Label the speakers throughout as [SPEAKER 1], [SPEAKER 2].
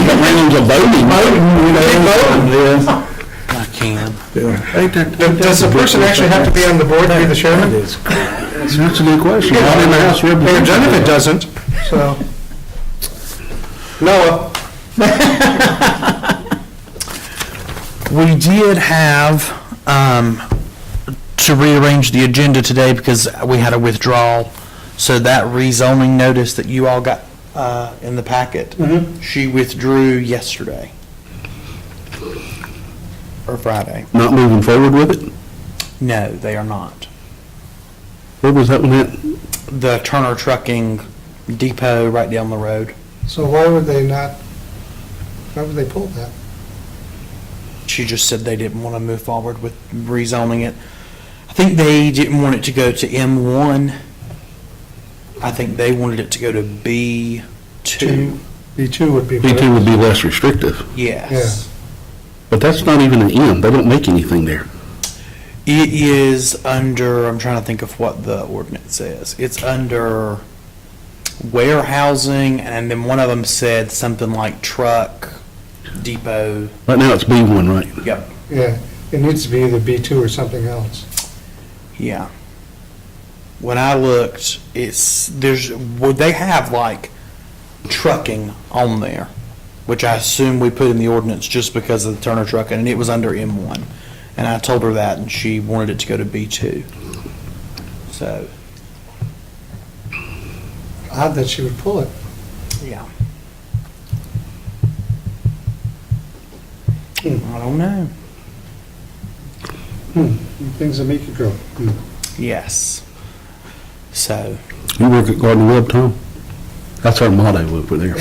[SPEAKER 1] rounds of voting. Voting, you know. Voting.
[SPEAKER 2] I can.
[SPEAKER 3] Does the person actually have to be on the board to be the chairman?
[SPEAKER 1] That's a good question. Not in the House
[SPEAKER 3] Mayor Donovan
[SPEAKER 1] representative.
[SPEAKER 3] doesn't, so. Noah,
[SPEAKER 2] We did have, um, to rearrange the agenda today because we had a withdrawal. So that rezoning notice that you all got, uh, in the packet, she withdrew yesterday. Or Friday.
[SPEAKER 1] Not moving forward with it?
[SPEAKER 2] No, they are not.
[SPEAKER 1] Where was that one at?
[SPEAKER 2] The Turner Trucking Depot right down the road.
[SPEAKER 3] so why would they not, why would they pull that?
[SPEAKER 2] She just said they didn't want to move forward with rezoning it. I think they didn't want it to go to M1. I think they wanted it to go to B2.
[SPEAKER 3] B2 would be.
[SPEAKER 1] B2 would be less restrictive,
[SPEAKER 2] Yes.
[SPEAKER 1] but that's not even an M. They don't make anything there.
[SPEAKER 2] It is under, I'm trying to think of what the ordinance says. It's under warehousing, and then one of them said something like truck, depot.
[SPEAKER 1] Right now, it's B1, right?
[SPEAKER 2] Yep.
[SPEAKER 3] Yeah, it needs to be either B2 or something else.
[SPEAKER 2] Yeah. When I looked, it's, there's, well, they have like trucking on there, which I assume we put in the ordinance just because of the Turner trucking, and it was under M1. And I told her that, and she wanted it to go to B2. So,
[SPEAKER 3] Odd that she would pull it.
[SPEAKER 2] yeah. I don't know.
[SPEAKER 3] Things that make you go. hmm.
[SPEAKER 2] Yes. So,
[SPEAKER 1] You work at Garden Web, Tom? That's our motto over there.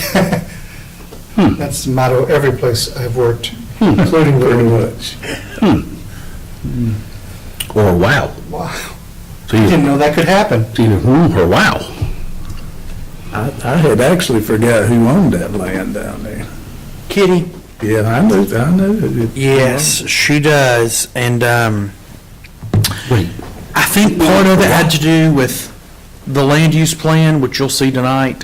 [SPEAKER 3] That's the motto every place I've worked, including Living Woods.
[SPEAKER 1] Or wow.
[SPEAKER 3] Wow,
[SPEAKER 1] It's
[SPEAKER 3] didn't
[SPEAKER 1] either,
[SPEAKER 3] know that could happen.
[SPEAKER 1] it's either hmm or wow.
[SPEAKER 4] I, I had actually forgot who owned that land down there.
[SPEAKER 2] Kitty,
[SPEAKER 4] Yeah, I knew, I knew. it.
[SPEAKER 2] Yes, she does, and um,
[SPEAKER 1] Wait.
[SPEAKER 2] I think part of it had to do with the land use plan, which you'll see tonight,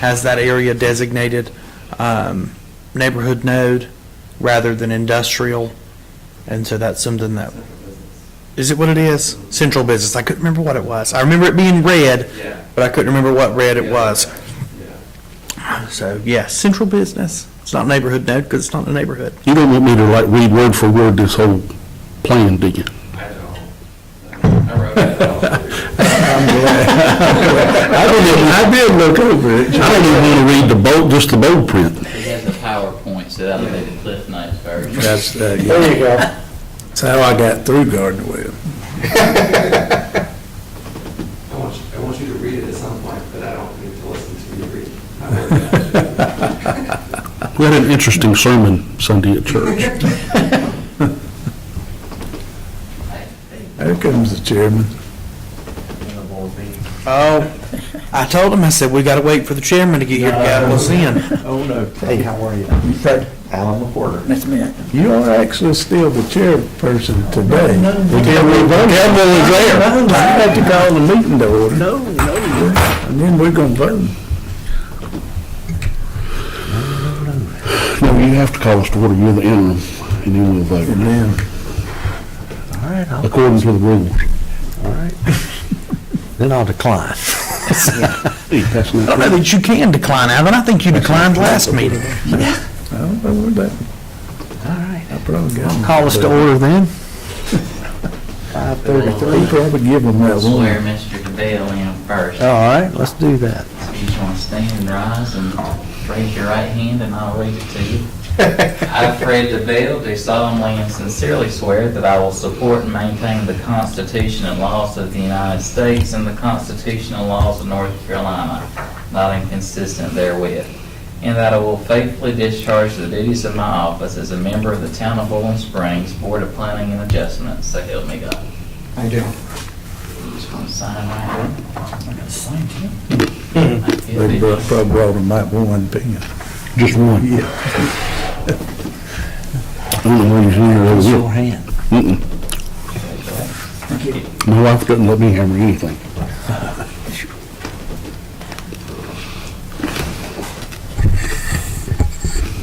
[SPEAKER 2] has that area designated um, neighborhood node rather than industrial, and so that's something that, is it what it is? Central business, I couldn't remember what it was. I remember it being red, but I couldn't remember what red it was. So, yes, central business, it's not neighborhood node, because it's not a neighborhood.
[SPEAKER 1] You don't want me to like read word for word this whole plan, do you?
[SPEAKER 4] I did, I did look over it.
[SPEAKER 1] I don't even want to read the bold, just the bold print.
[SPEAKER 5] He has the PowerPoint, so that'll be the Cliff Notes version.
[SPEAKER 4] That's, uh, yeah,
[SPEAKER 3] There you go.
[SPEAKER 4] that's how I got through Garden Web.
[SPEAKER 6] I want, you- I want you to read it at some point, but I don't need to listen to you read. I'm very bad.
[SPEAKER 1] We had an interesting sermon Sunday at church.
[SPEAKER 4] There comes the chairman.
[SPEAKER 2] Oh, I told him, I said, we gotta wait for the chairman to get here to gather us in.
[SPEAKER 7] Oh, no. Hey, how are you? Fred. Alan McWhorter. Nice to meet you.
[SPEAKER 4] You are actually still the chairperson today.
[SPEAKER 7] No, no, no.
[SPEAKER 4] Campbell is there.
[SPEAKER 7] No, no, no.
[SPEAKER 4] I had to call the meeting to order.
[SPEAKER 7] No, no.
[SPEAKER 4] And then we're gonna vote.
[SPEAKER 1] No, you have to call us to order, you're the interim, and then we'll vote,
[SPEAKER 4] And then,
[SPEAKER 7] All right, I'll-
[SPEAKER 1] according to the rules.
[SPEAKER 7] then I'll decline.
[SPEAKER 1] Hey, that's
[SPEAKER 2] I don't
[SPEAKER 1] not,
[SPEAKER 2] know that you can decline, Alvin, I think you declined last meeting.
[SPEAKER 4] I don't know where that,
[SPEAKER 7] All right.
[SPEAKER 4] I probably got. him.
[SPEAKER 2] Call us to order then.
[SPEAKER 7] Five thirty-three.
[SPEAKER 4] We probably give them that one. Oh.
[SPEAKER 5] Swear Mr. DeBelle in first.
[SPEAKER 7] All right, let's do that.
[SPEAKER 5] So you just want to stand and rise and raise your right hand and I'll read it to you. I, Fred DeVille, do solemnly and sincerely swear that I will support and maintain the Constitution and laws of the United States and the Constitution and laws of North Carolina, not inconsistent therewith, and that I will faithfully discharge the duties of my office as a member of the Town of Bowling Springs Board of Planning and Adjustment, so help me God.
[SPEAKER 3] I do.
[SPEAKER 5] You Just want to sign right here. I got to sign too.
[SPEAKER 4] They brought- probably brought them that one pen.
[SPEAKER 1] just one.
[SPEAKER 4] Yeah.
[SPEAKER 1] I don't know where you're here,
[SPEAKER 7] Raise
[SPEAKER 1] over
[SPEAKER 7] your hand.
[SPEAKER 1] here. Mm-mm. My wife doesn't let me hammer anything.